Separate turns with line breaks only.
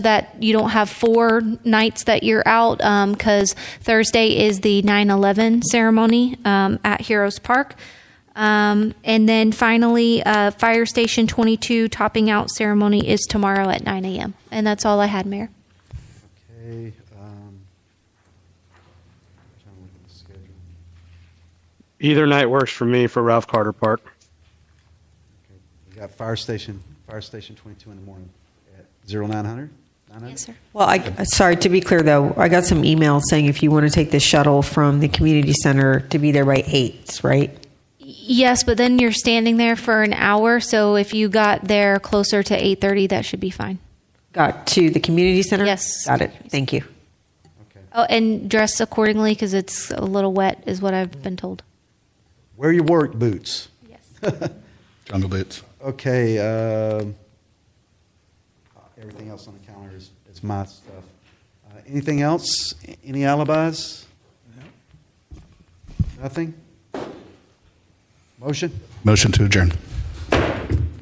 that you don't have four nights that you're out because Thursday is the 9 11 ceremony um, at Heroes Park. Um, and then finally, uh, Fire Station 22 topping out ceremony is tomorrow at 9 a.m. And that's all I had, Mayor.
Okay, um, trying to look at the schedule.
Either night works for me for Ralph Carter Park.
Okay, We got fire station, fire station 22 in the morning at 0900?
Yes, sir.
Well, I, sorry, to be clear though, I got some emails saying if you want to take the shuttle from the community center to be there by eight, right?
Yes, but then you're standing there for an hour. So if you got there closer to 8:30, that should be fine.
Got to the community center?
Yes.
Got it. Thank you.
Okay.
Oh, and dress accordingly because it's a little wet, is what I've been told.
Wear your work boots.
Yes.
Jungle Boots.
Okay, um, everything else on the calendar is, is my stuff. Uh, Anything else? A- Any alibis? Nothing? Motion?
Motion to adjourn.